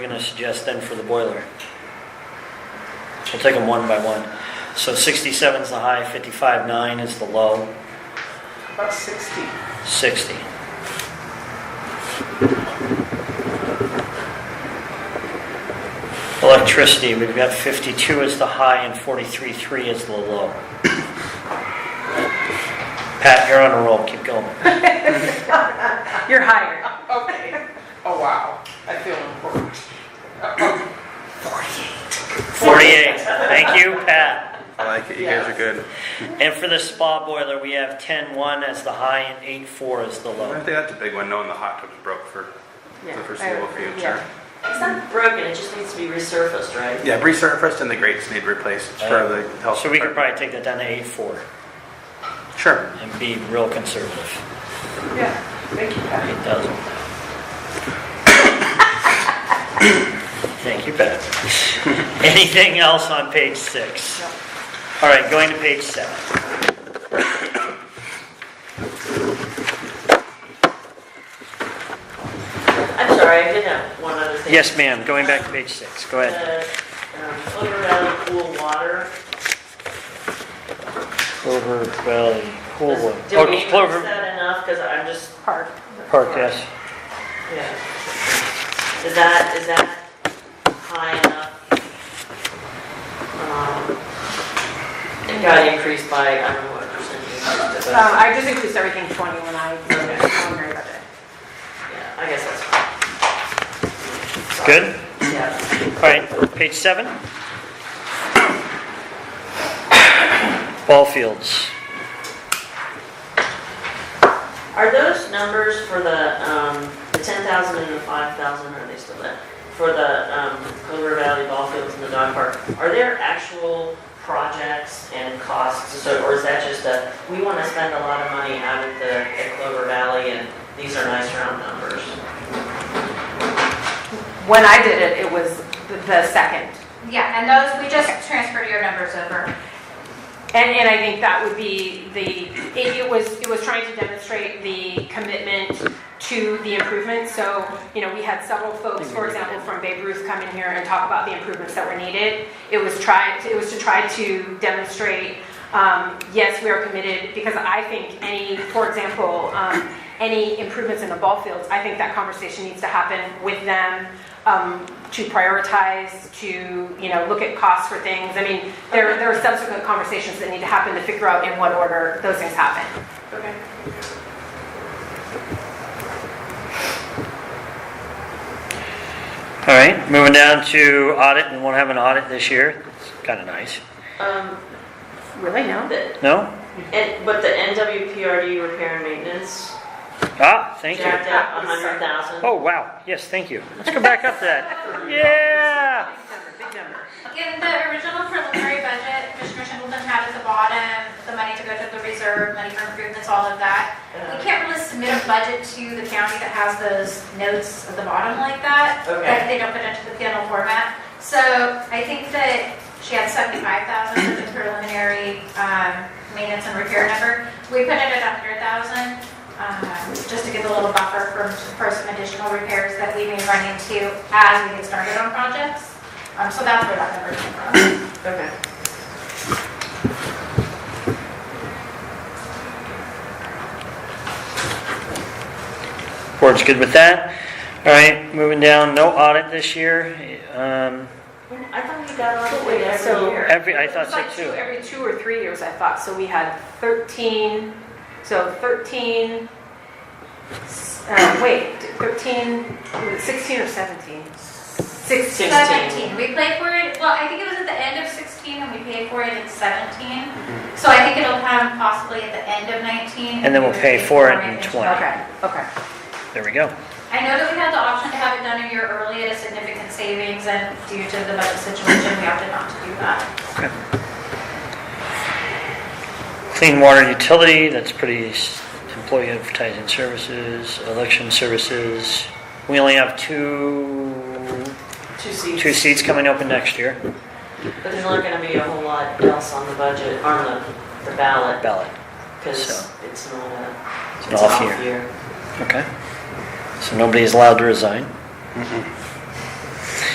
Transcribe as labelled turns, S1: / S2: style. S1: We're gonna suggest then for the boiler. We'll take them one by one. So 67 is the high, 55, 9 is the low,
S2: About 60.
S1: 60. Electricity, we've got 52 is the high and 43, 3 is the low. Pat, you're on a roll, keep going.
S3: You're higher.
S2: Okay. Oh, wow. I feel important.
S1: 48, thank you, Pat.
S4: I like it. You guys are good.
S1: And for the spa boiler, we have 10-1 as the high and 8-4 as the
S4: I
S1: low.
S4: think that's a big one, knowing the hot tub's broke for the foreseeable future.
S5: It's not broken, it just needs to be resurfaced, right?
S4: Yeah, resurfaced and the grates need replaced for the health.
S1: Uh, So we could
S4: department.
S1: probably take that down to 8-4
S4: Sure.
S1: and be real conservative.
S2: Yeah. Thank you,
S3: Um,
S2: Patty.
S1: 8,000. Thank you, Pat. Anything else on page six? All right, going to page seven.
S5: I'm sorry, I did have one other thing.
S1: Yes, ma'am, going back to page six, go ahead.
S5: The, um, Clover Valley Cool Water,
S1: Clover Valley, Coolwood.
S5: Does- did we
S1: Oh,
S5: use
S1: Clover
S5: that enough? Because I'm just,
S3: Park.
S1: Park, yes.
S5: yeah. Is that, is that high enough? Um, It got increased by, I don't know what percent you used,
S3: Um,
S5: but
S3: I just increased everything 20 when I, I'm very about it.
S5: yeah, I guess that's fine.
S1: Good?
S5: Yeah.
S1: All right, page seven. Ball fields.
S5: Are those numbers for the, um, the ten thousand and the five thousand, are they still there? For the, um, Clover Valley Ball Fields and the dog park, are there actual projects and costs, so, or is that just a, we wanna spend a lot of money out at the, at Clover Valley and these are nice round numbers?
S3: When I did it, it was the- the second.
S6: Yeah, and those, we just transferred your numbers over.
S3: And, and I think that would be the, it, it was, it was trying to demonstrate the commitment to the improvements. So, you know, we had several folks, for example, from Babe Ruth come in here and talk about the improvements that were needed. It was try, it was to try to demonstrate, um, yes, we are committed, because I think any, for example, um, any improvements in the ball fields, I think that conversation needs to happen with them, um, to prioritize, to, you know, look at costs for things. I mean, there, there are subsequent conversations that need to happen to figure out in what order those things happen.
S5: Okay.
S1: All right, moving down to audit, and won't have an audit this year. It's kind of nice.
S5: Um,
S3: Really, no?
S5: the,
S1: No?
S5: and, but the NWPRD repair and maintenance,
S1: Ah, thank you.
S5: jacked up a hundred thousand?
S1: Oh, wow, yes, thank you. Let's go back up to that. Yeah!
S3: Big number.
S6: In the original preliminary budget, Commissioner Singleton had at the bottom, the money to go to the reserve, money for improvements, all of that. We can't really submit a budget to the county that has those notes at the bottom like that.
S5: Okay.
S6: That they don't put into the final format. So I think that she had seventy-five thousand for the preliminary, um, maintenance and repair number. We put it at a hundred thousand, um, just to give a little buffer for, for some additional repairs that we may run into as we get started on projects. Um, so that's where that number came
S5: Okay.
S6: from.
S1: Board's good with that. All right, moving down, no audit this year. Um,
S5: I thought you got on
S3: Wait,
S5: it every
S3: so-
S5: year.
S1: Every, I thought
S3: It's like
S1: so
S3: two-
S1: too.
S3: Every two or three years, I thought, so we had 13, so 13, s- uh, wait, 13, was it 16 or 17? 16.
S6: Seventeen, we played for it, well, I think it was at the end of sixteen and we paid for it in seventeen. So I think it'll come possibly at the end of nineteen.
S1: Mm-hmm. And then we'll pay for it in 20.
S3: Okay, okay.
S1: There we go.
S6: I know that we had the option to have it done a year early at a significant savings and due to the budget situation, we opted not to do that.
S1: Clean water utility, that's pretty, s- employee advertising services, election services. We only have two,
S5: Two seats.
S1: two seats coming open next year,
S5: But there's not gonna be a whole lot else on the budget, on the, the ballot,
S1: ballot,
S5: because
S1: So.
S5: it's not a,
S1: It's
S5: it's
S1: an
S5: an
S1: off
S5: off
S1: year.
S5: year.
S1: okay? So nobody is allowed to resign.
S4: Mhm.